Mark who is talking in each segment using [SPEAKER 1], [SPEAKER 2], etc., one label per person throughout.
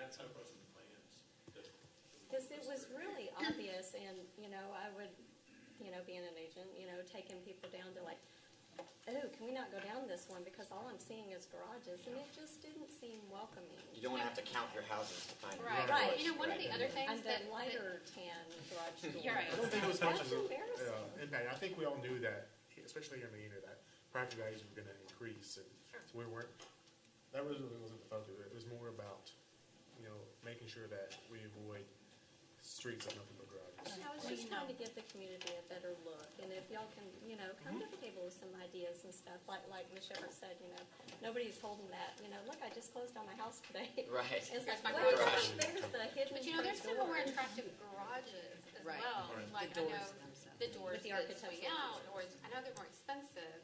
[SPEAKER 1] that's how frozen the plan is. that- that we
[SPEAKER 2] Because it
[SPEAKER 1] discussed
[SPEAKER 2] was
[SPEAKER 1] earlier.
[SPEAKER 2] really obvious, and, you know, I would, you know, being an agent, you know, taking people down to like, oh, can we not go down this one, because all I'm seeing is garages, and it just didn't seem welcoming.
[SPEAKER 3] You don't want to have to count your houses to find. your
[SPEAKER 4] Right.
[SPEAKER 2] Right.
[SPEAKER 4] You know, one of the other things
[SPEAKER 2] And
[SPEAKER 4] that,
[SPEAKER 2] the
[SPEAKER 4] that-
[SPEAKER 2] lighter tan garage door.
[SPEAKER 4] You're right. I don't
[SPEAKER 5] think it was much
[SPEAKER 2] That's
[SPEAKER 5] of a-
[SPEAKER 2] embarrassing.
[SPEAKER 5] Yeah, impact. I think we all knew that, especially here in the unit, that property values were gonna increase, and so we weren't, that really wasn't the focus, it was more about, you know, making sure that we avoid streets of nothing but garages.
[SPEAKER 2] I was just trying to give the community a better look, and if y'all can, you know, come
[SPEAKER 3] Mm-hmm.
[SPEAKER 2] to the table with some ideas and stuff, like, like Ms. Shepherd said, you know, nobody's holding that, you know, look, I just closed on my house today.
[SPEAKER 3] Right.
[SPEAKER 2] It's like,
[SPEAKER 4] my
[SPEAKER 2] well,
[SPEAKER 3] garage.
[SPEAKER 2] there's the hidden.
[SPEAKER 4] but you know, there's
[SPEAKER 2] front
[SPEAKER 4] people who are
[SPEAKER 2] door.
[SPEAKER 4] attracted garages as
[SPEAKER 6] Right.
[SPEAKER 4] well.
[SPEAKER 5] Right.
[SPEAKER 4] Like
[SPEAKER 6] The
[SPEAKER 4] I
[SPEAKER 6] doors
[SPEAKER 4] know
[SPEAKER 6] themselves.
[SPEAKER 4] the doors
[SPEAKER 2] With the
[SPEAKER 4] that swing
[SPEAKER 2] architectural
[SPEAKER 4] out, or
[SPEAKER 2] features.
[SPEAKER 4] I know they're more expensive,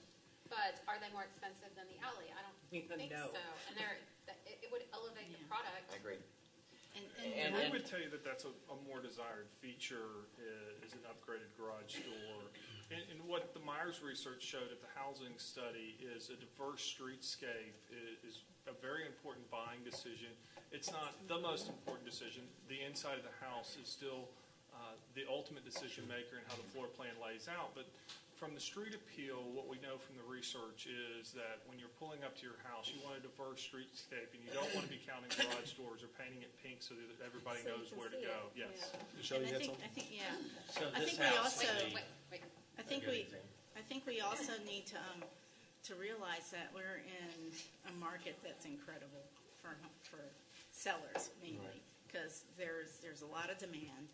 [SPEAKER 4] but are they more expensive than the alley? I don't
[SPEAKER 6] Yeah,
[SPEAKER 4] think
[SPEAKER 6] no.
[SPEAKER 4] so. And they're that- it, it would elevate the
[SPEAKER 6] Yeah.
[SPEAKER 4] product.
[SPEAKER 3] I agree.
[SPEAKER 6] And,
[SPEAKER 3] And-
[SPEAKER 6] and,
[SPEAKER 7] I would tell you that that's a, a more desired feature i- is an upgraded garage door. And, and what the Myers research showed at the housing study is a diverse streetscape i- is a very important buying decision. It's not the most important decision. The inside of the house is still uh, the ultimate decision maker in how the floor plan lays out. But from the street appeal, what we know from the research is that when you're pulling up to your house, you want a diverse streetscape, and you don't want to be counting garage doors or painting it pink so that everybody
[SPEAKER 2] So you
[SPEAKER 7] knows
[SPEAKER 2] can
[SPEAKER 7] where to
[SPEAKER 2] see
[SPEAKER 7] go.
[SPEAKER 2] it,
[SPEAKER 7] Yes.
[SPEAKER 2] yeah.
[SPEAKER 5] Michelle,
[SPEAKER 8] I
[SPEAKER 5] you had
[SPEAKER 8] think,
[SPEAKER 5] something?
[SPEAKER 8] I think, yeah,
[SPEAKER 1] So
[SPEAKER 8] I
[SPEAKER 1] this
[SPEAKER 8] think we
[SPEAKER 1] house
[SPEAKER 8] also-
[SPEAKER 1] would
[SPEAKER 4] Wait,
[SPEAKER 1] be
[SPEAKER 4] wait, wait.
[SPEAKER 8] I think
[SPEAKER 1] good
[SPEAKER 8] we,
[SPEAKER 1] example.
[SPEAKER 8] I think we also need to, um, to realize that we're in a market that's incredible for, for sellers mainly. Because there's, there's a lot of demand,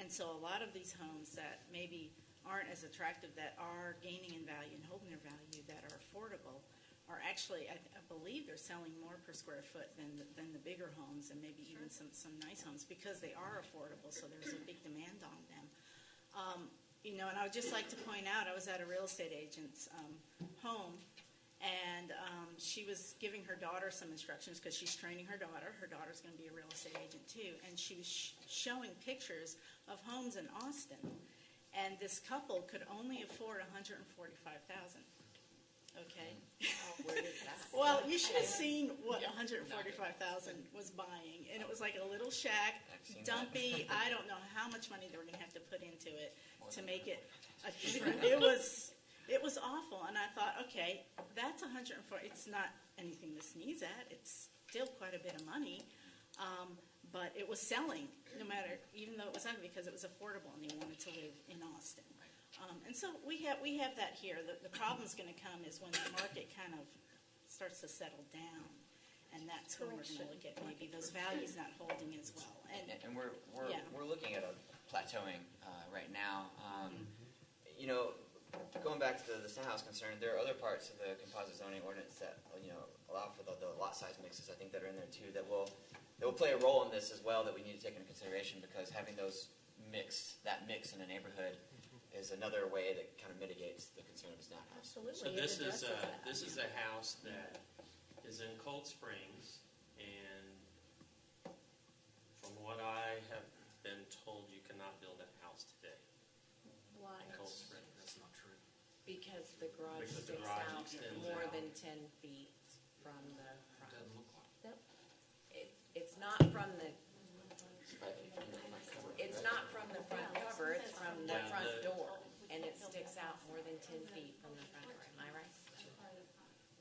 [SPEAKER 8] and so a lot of these homes that maybe aren't as attractive, that are gaining in value and holding their value, that are affordable, are actually, I, I believe they're selling more per square foot than, the- than the bigger homes and maybe even some, some nice homes, because they are affordable, so there's a big demand on them. Um, you know, and I would just like to point out, I was at a real estate agent's um, home, and um, she was giving her daughter some instructions because she's training her daughter. Her daughter's going to be a real estate agent too, and she was sh- showing pictures of homes in Austin, and this couple could only afford one hundred and forty-five thousand. Okay.
[SPEAKER 6] where is that?
[SPEAKER 8] Well, you should have seen what 145,000 was buying, and it was like a little shack,
[SPEAKER 3] I've seen that.
[SPEAKER 8] dumpy. I don't know how much money they were going to have to put into it to make it. a- It was it was awful, and I thought, okay, that's 104. It's not anything to sneeze at. It's still quite a bit of money. Um, but it was selling, no matter, even though it was ugly, because it was affordable and they wanted to live in Austin. Um, and so we have, we have that here. The, the problem's gonna come is when the market kind of starts to settle down. And that's when we're gonna look at maybe those values not holding as well. And,
[SPEAKER 3] And, and we're, we're,
[SPEAKER 8] Yeah.
[SPEAKER 3] we're looking at a plateauing uh, right now. Um, You know, going back to the, the house concern, there are other parts of the composite zoning ordinance that, you know, allow for the, the lot size mixes, I think, that are in there too, that will, that will play a role in this as well, that we need to take into consideration, because having those mixed, that mix in a neighborhood is another way that kind of mitigates the concern of a snap house.
[SPEAKER 2] Absolutely.
[SPEAKER 1] So
[SPEAKER 2] it
[SPEAKER 1] this is,
[SPEAKER 2] addresses
[SPEAKER 1] uh,
[SPEAKER 2] that.
[SPEAKER 1] this is a house that is in Cold Springs, and from what I have been told, you cannot build a house today
[SPEAKER 6] Why?
[SPEAKER 1] in Cold Springs. That's not true.
[SPEAKER 6] Because the garage
[SPEAKER 1] Because the
[SPEAKER 6] sticks
[SPEAKER 1] garage
[SPEAKER 6] out
[SPEAKER 1] extends
[SPEAKER 6] more
[SPEAKER 1] out.
[SPEAKER 6] than ten feet from the front.
[SPEAKER 1] Doesn't look like.
[SPEAKER 2] Yep.
[SPEAKER 6] It, it's not from the, it's not from the front cover, it's from the
[SPEAKER 1] Yeah, the-
[SPEAKER 6] front door. And it sticks out more than ten feet from the front, am I right?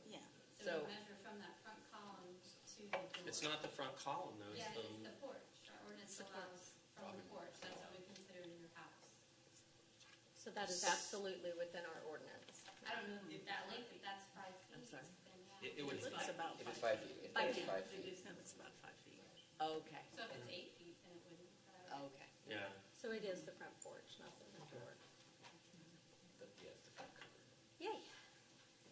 [SPEAKER 8] yeah.
[SPEAKER 6] So-
[SPEAKER 9] So we measure from that front column to the door.
[SPEAKER 1] It's not the um, front column, though, it's
[SPEAKER 9] Yeah, it's
[SPEAKER 1] the,
[SPEAKER 9] the porch. Our ordinance allows from the porch. That's what we consider in your house.
[SPEAKER 2] So that is absolutely within our ordinance.
[SPEAKER 9] I don't know if that length, if that's five feet.
[SPEAKER 6] I'm sorry.
[SPEAKER 9] then yeah.
[SPEAKER 1] it it would,
[SPEAKER 8] It's about
[SPEAKER 3] If it's five
[SPEAKER 8] five.
[SPEAKER 3] feet, if
[SPEAKER 6] Five
[SPEAKER 3] it's
[SPEAKER 6] feet.
[SPEAKER 3] five feet.
[SPEAKER 8] It's about five feet.
[SPEAKER 6] Okay,
[SPEAKER 9] So if it's eight feet, then it wouldn't. but I would-
[SPEAKER 1] Oh,
[SPEAKER 6] okay.
[SPEAKER 1] yeah,
[SPEAKER 2] So it is the front porch, not the front door.
[SPEAKER 3] the- yeah, the front cover.
[SPEAKER 2] Yay,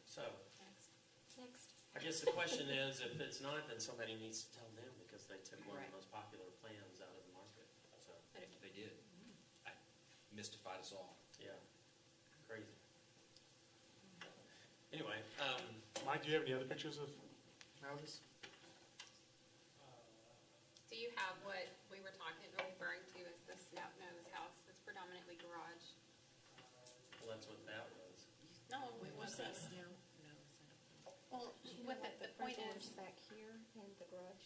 [SPEAKER 1] so,
[SPEAKER 2] next.
[SPEAKER 1] I guess the question is, if it's not, then somebody needs to tell them, because they took one of
[SPEAKER 6] Right.
[SPEAKER 1] the most popular plans out of the market, so,
[SPEAKER 10] They did. I mystified us all.
[SPEAKER 1] yeah, crazy. Anyway, um,
[SPEAKER 5] Mike, do you have any other pictures of houses?
[SPEAKER 4] Do you have what we were talking, referring to as the snout nose house that's predominantly garage?
[SPEAKER 1] well, that's what that was.
[SPEAKER 4] No, it
[SPEAKER 6] No,
[SPEAKER 4] wasn't.
[SPEAKER 6] no, it's not.
[SPEAKER 4] Well,
[SPEAKER 2] You know
[SPEAKER 4] what
[SPEAKER 2] what,
[SPEAKER 4] the, the
[SPEAKER 2] front
[SPEAKER 4] point
[SPEAKER 2] door's
[SPEAKER 4] is,
[SPEAKER 2] Back here and the garage